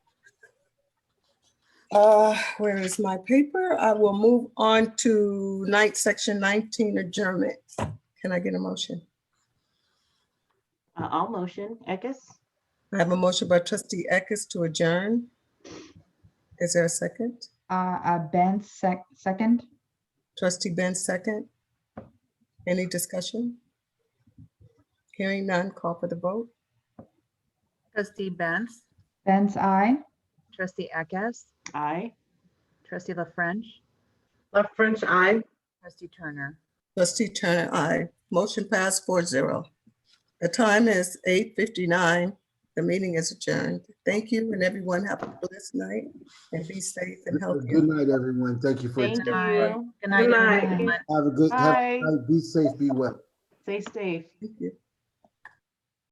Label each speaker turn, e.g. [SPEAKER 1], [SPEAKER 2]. [SPEAKER 1] Uh, where is my paper? I will move on to night, section nineteen adjournment. Can I get a motion?
[SPEAKER 2] Uh, I'll motion, Eckes.
[SPEAKER 1] I have a motion by trustee Eckes to adjourn. Is there a second?
[SPEAKER 3] Uh, uh, Ben, sec, second?
[SPEAKER 1] Trustee Ben, second. Any discussion? Hearing none, call for the vote.
[SPEAKER 4] Trustee Benz,
[SPEAKER 3] Ben's I.
[SPEAKER 4] trustee Eckes,
[SPEAKER 2] Aye.
[SPEAKER 4] trustee La French,
[SPEAKER 5] La French, I.
[SPEAKER 4] trustee Turner.
[SPEAKER 1] Trustee Turner, aye. Motion passed four zero. The time is eight fifty-nine. The meeting is adjourned. Thank you, and everyone have a blessed night and be safe and healthy.
[SPEAKER 6] Good night, everyone. Thank you for
[SPEAKER 2] Thank
[SPEAKER 6] attending.
[SPEAKER 2] you.
[SPEAKER 4] Good night,
[SPEAKER 5] night.
[SPEAKER 4] everyone.
[SPEAKER 6] Have a good, have,
[SPEAKER 2] Bye.
[SPEAKER 6] be safe, be well.
[SPEAKER 2] Stay safe.
[SPEAKER 1] Thank you.